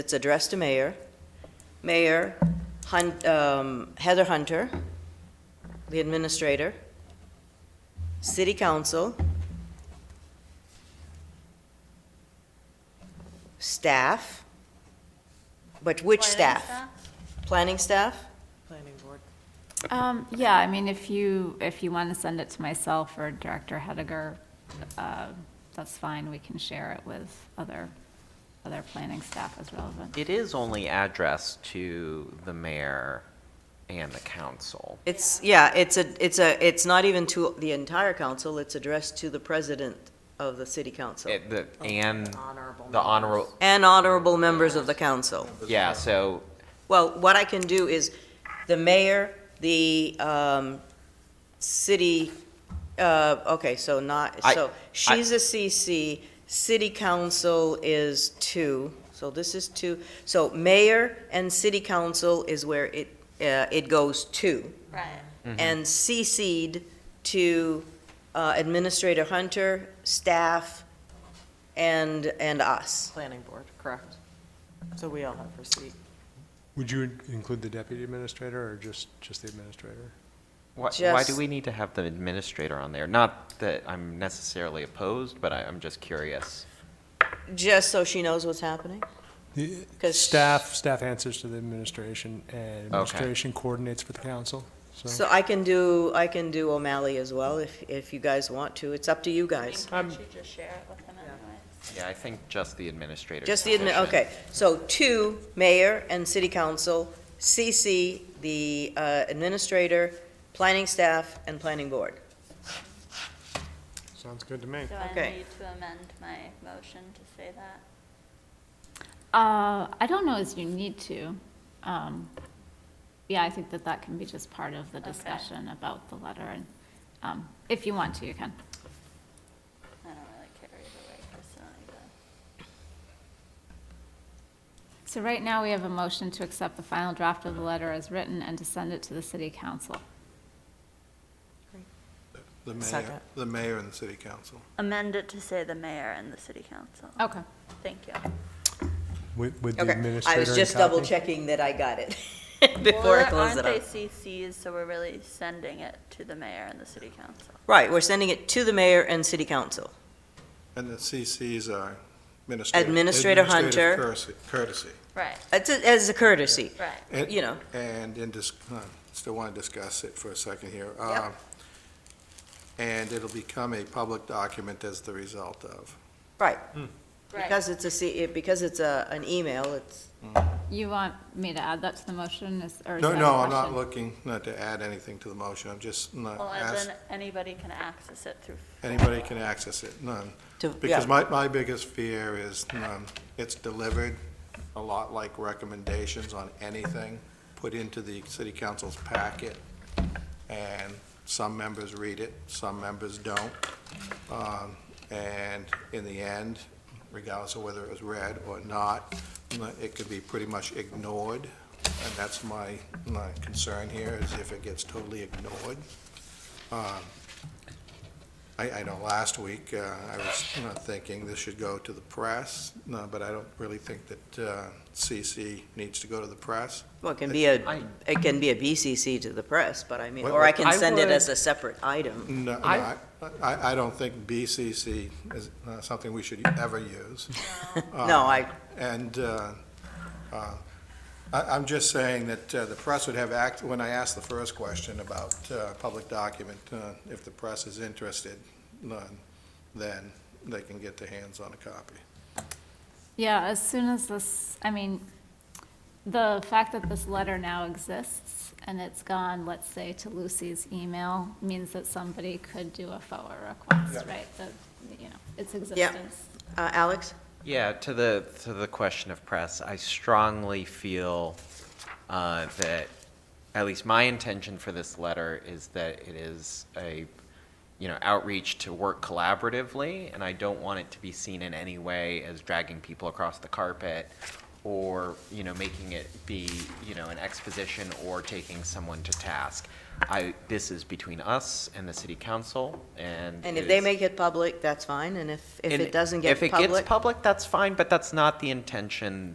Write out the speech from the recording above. It's addressed to mayor. Mayor, Hun- um, Heather Hunter, the administrator, city council, staff, but which staff? Planning staff? Planning board. Um, yeah, I mean, if you, if you want to send it to myself or Director Hediger, uh, that's fine, we can share it with other, other planning staff as relevant. It is only addressed to the mayor and the council. It's, yeah, it's a, it's a, it's not even to the entire council, it's addressed to the president of the city council It- the- And Honorable the honorable, and honorable members of the council. yeah, so, Well, what I can do is, the mayor, the um, city, uh, okay, so not, I- so she's a CC, city council is two, so this is two. So mayor and city council is where it, uh, it goes to. Right. Mm-hmm. And CC'd to uh, Administrator Hunter, staff, and, and us. Planning board, correct. So we all have receipt. Would you in- include the deputy administrator or just, just the administrator? why, why do Just- we need to have the administrator on there? Not that I'm necessarily opposed, but I, I'm just curious. Just so she knows what's happening. The- 'Cause- Staff, staff answers to the administration and administration coordinates with the council, so. So I can do, I can do O'Malley as well, if, if you guys want to. It's up to you guys. Can't you just share it with them anyway? Yeah, I think just the administrator. Just the, admi- okay, so two, mayor and city council, CC, the uh, administrator, planning staff, and planning board. Sounds good to me. Do I Okay. need to amend my motion to say that? Uh, I don't know as you need to. Um, yeah, I think that that can be just part of the discussion about the letter, and, um, if you want to, you can. I don't really care either way personally, but. So right now, we have a motion to accept the final draft of the letter as written and to send it to the city council. The Second. mayor, the mayor and the city council. Amend it to say the mayor and the city council. Okay. Thank you. With, with the Okay, administrator I was in just double copy? checking that I got it before I close it Aren't they up. CCs, so we're really sending it to the mayor and the city council? Right, we're sending it to the mayor and city council. And the CCs are administrative. Administrator Hunter. Administrative courtesy- Courtesy. Right, It's, a- as a courtesy, right. And- you know. And in dis, uh, still want to discuss it for a second here. Uh, And it'll become a public document as the result of. Because it's a, C- because it's a, an email, it's, You want me to add that to the motion, is- or is No, that a no, I'm question? not looking, not to add anything to the motion, I'm just uh, not Well, as asking, in, anybody can access it through. anybody can access it, none. to, yeah. Because my, my biggest fear is, um, it's delivered a lot like recommendations on anything put into the city council's packet, and some members read it, some members don't. Um, and in the end, regardless of whether it was read or not, it could be pretty much ignored. And that's my, my concern here, is if it gets totally ignored. Um, I, I know last week, uh, I was you know, thinking this should go to the press, no, but I don't really think that uh, CC needs to go to the press. Well, it can be a, I- it can be a BCC to the press, but I mean, Well, or I I can send it would- as a separate item. No, no, I, I- I I don't think BCC is uh, something we should ever use. No, I, And uh, uh, I- I'm just saying that uh, the press would have act, when I asked the first question about uh, public document, uh, if the press is interested, none, then they can get their hands on a copy. Yeah, as soon as this, I mean, the fact that this letter now exists and it's gone, let's say, to Lucy's email, means that somebody could do a FOA request, right? That, you know, its existence. uh, Alex? Yeah, to the, to the question of press, I strongly feel uh, that, at least my intention for this letter is that it is a, you know, outreach to work collaboratively, and I don't want it to be seen in any way as dragging people across the carpet or, you know, making it be, you know, an exposition or taking someone to task. I, this is between us and the city council, and. And if it they is- make it public, that's fine, and if, if and it doesn't get If it public, gets public, that's fine, but that's not the intention